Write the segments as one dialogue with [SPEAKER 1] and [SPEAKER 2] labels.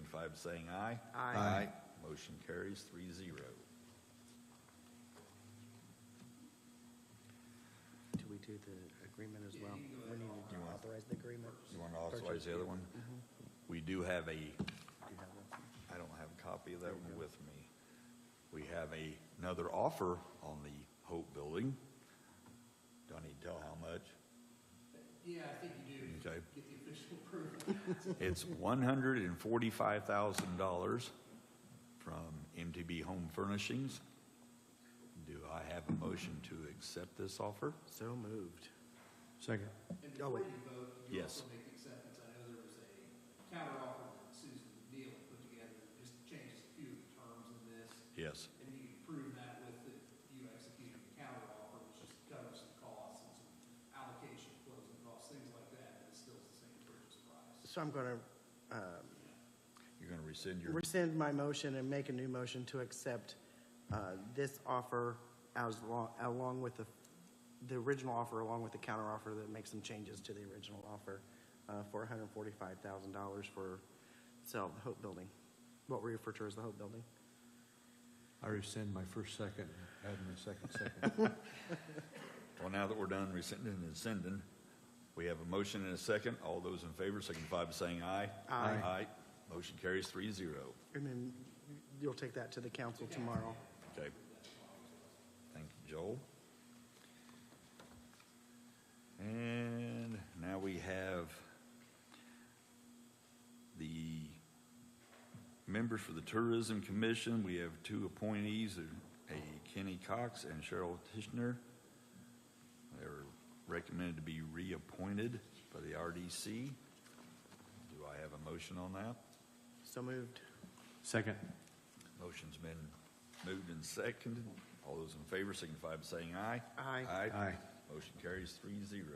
[SPEAKER 1] signify by saying aye.
[SPEAKER 2] Aye.
[SPEAKER 1] Motion carries three zero.
[SPEAKER 2] Do we do the agreement as well? We need to
[SPEAKER 1] You want-
[SPEAKER 2] authorize the agreement.
[SPEAKER 1] You want to authorize the other one? We do have a
[SPEAKER 2] Do you have one?
[SPEAKER 1] I don't have a copy of that one with me. We have a, another offer on the Hope Building. Do I need to tell how much?
[SPEAKER 3] Yeah, I think you do.
[SPEAKER 1] Okay.
[SPEAKER 3] Get the official approval.
[SPEAKER 1] It's one hundred and forty-five thousand dollars from MTB Home Furnishings. Do I have a motion to accept this offer?
[SPEAKER 2] So moved.
[SPEAKER 4] Second.
[SPEAKER 3] And
[SPEAKER 2] Oh,
[SPEAKER 3] before
[SPEAKER 2] wait.
[SPEAKER 3] you vote, you
[SPEAKER 1] Yes.
[SPEAKER 3] also make the acceptance. I know there was a counteroffer that Susan Neal put together, just changes a few of the terms in this.
[SPEAKER 1] Yes.
[SPEAKER 3] And you can prove that with the, you executing the counteroffer, which just covers some costs and some allocation, closing costs, things like that, but it's still the same purchase price.
[SPEAKER 2] So I'm going to
[SPEAKER 1] You're going to rescind your,
[SPEAKER 2] rescind my motion and make a new motion to accept uh, this offer as lo- along with the, the original offer, along with the counteroffer that makes some changes to the original offer uh, for $145,000 for sell the Hope Building, what we refer to as the Hope Building.
[SPEAKER 4] I rescind my first second, add my second second.
[SPEAKER 1] well, now that we're done rescinding and sending, we have a motion and a second. All those in favor signify by saying aye.
[SPEAKER 2] Aye.
[SPEAKER 1] Aye. Motion carries three zero.
[SPEAKER 2] And then you'll take that to the council tomorrow.
[SPEAKER 1] Okay. Thank you, Joel. And now we have the members for the Tourism Commission. We have two appointees, uh, a Kenny Cox and Cheryl Tishner. They're recommended to be reappointed by the RDC. Do I have a motion on that?
[SPEAKER 2] So moved.
[SPEAKER 4] Second.
[SPEAKER 1] Motion's been moved and seconded. All those in favor signify by saying aye.
[SPEAKER 2] Aye.
[SPEAKER 4] Aye.
[SPEAKER 1] Motion carries three zero.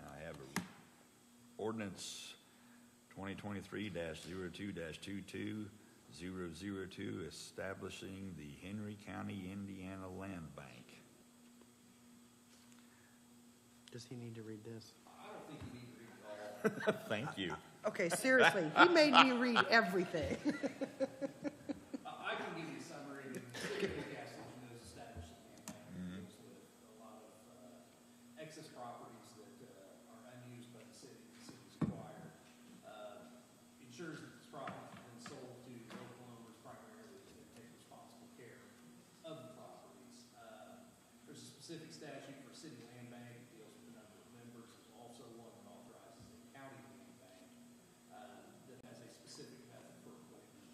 [SPEAKER 1] Now I have a ordinance twenty twenty-three 2 two-two-zero-zero-two, establishing the Henry County, Indiana Land Bank.
[SPEAKER 2] Does he need to read this?
[SPEAKER 1] Thank you.
[SPEAKER 2] Okay, seriously, he made me read everything.
[SPEAKER 3] I I can give you a summary of the Newcastle and those established in Manhattan. Deals with a lot of uh, excess properties that uh, are unused by the city, the city's acquired. Uh, Ensures that this property has been sold to local owners primarily that take responsible care of the properties. Uh, There's a specific statute for city land bank that deals with the number of members. There's also one that authorizes a county land bank uh, that has a specific method for appointment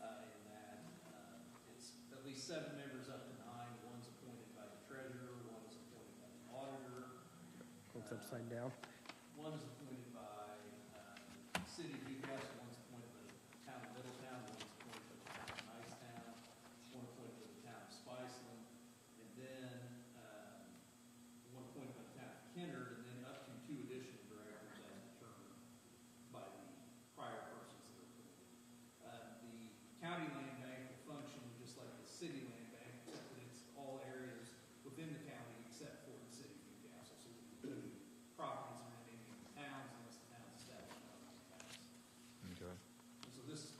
[SPEAKER 3] uh, in that. Uh, It's at least seven members up to nine. One's appointed by the treasurer, one's appointed by the auditor,
[SPEAKER 2] It's upside down.
[SPEAKER 3] one's appointed by uh, the city of Newcastle, one's appointed by the town of Middletown, one's appointed by the town of Nicetown, one appointed by the town of Spiceland, and then um, one appointed by the town of Kenner, and then up to two additional directors as determined by the prior persons that are appointed. Uh, The county land bank will function just like the city land bank, except that it's all areas within the county except for the city of Newcastle. So we include properties in any of the towns unless the town's established by the towns.
[SPEAKER 1] Okay.
[SPEAKER 3] And So this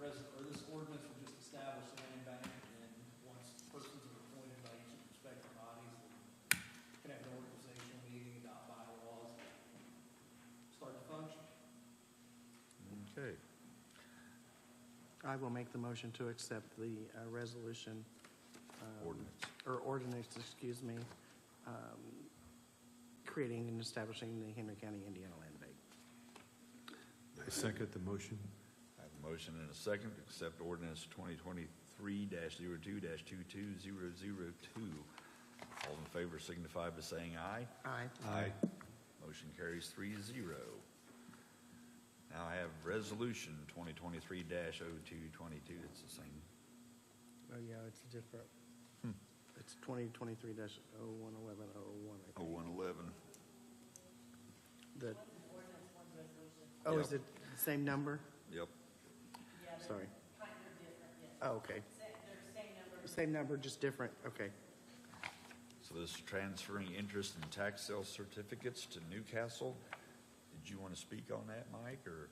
[SPEAKER 3] res, or this ordinance will just establish the land bank and then once persons are appointed by each of the respective bodies, they can have an organizational meeting, adopt bylaws, start to function.
[SPEAKER 1] Okay.
[SPEAKER 2] I will make the motion to accept the uh, resolution. um,
[SPEAKER 1] Ordinance.
[SPEAKER 2] Or ordinance, excuse me, um, creating and establishing the Henry County, Indiana Land Bank.
[SPEAKER 4] I second the motion.
[SPEAKER 1] I have a motion and a second to accept ordinance twenty twenty-three 2 two-two-zero-zero-two. All in favor signify by saying aye.
[SPEAKER 2] Aye.
[SPEAKER 4] Aye.
[SPEAKER 1] Motion carries three zero. Now I have resolution twenty twenty-three 2 two-twenty-two. It's the same.
[SPEAKER 2] Oh, yeah, it's different. It's twenty twenty-three dash oh one eleven oh one, I
[SPEAKER 1] Oh,
[SPEAKER 2] think.
[SPEAKER 1] one eleven.
[SPEAKER 2] The- Oh, is
[SPEAKER 1] Yep.
[SPEAKER 2] it the same number?
[SPEAKER 1] Yep.
[SPEAKER 2] Sorry.
[SPEAKER 5] Kind of different, yes.
[SPEAKER 2] Oh, okay.
[SPEAKER 5] Same, they're same number.
[SPEAKER 2] Same number, just different, okay.
[SPEAKER 1] So this is transferring interest in tax sale certificates to Newcastle. Did you want to speak on that, Mike, or?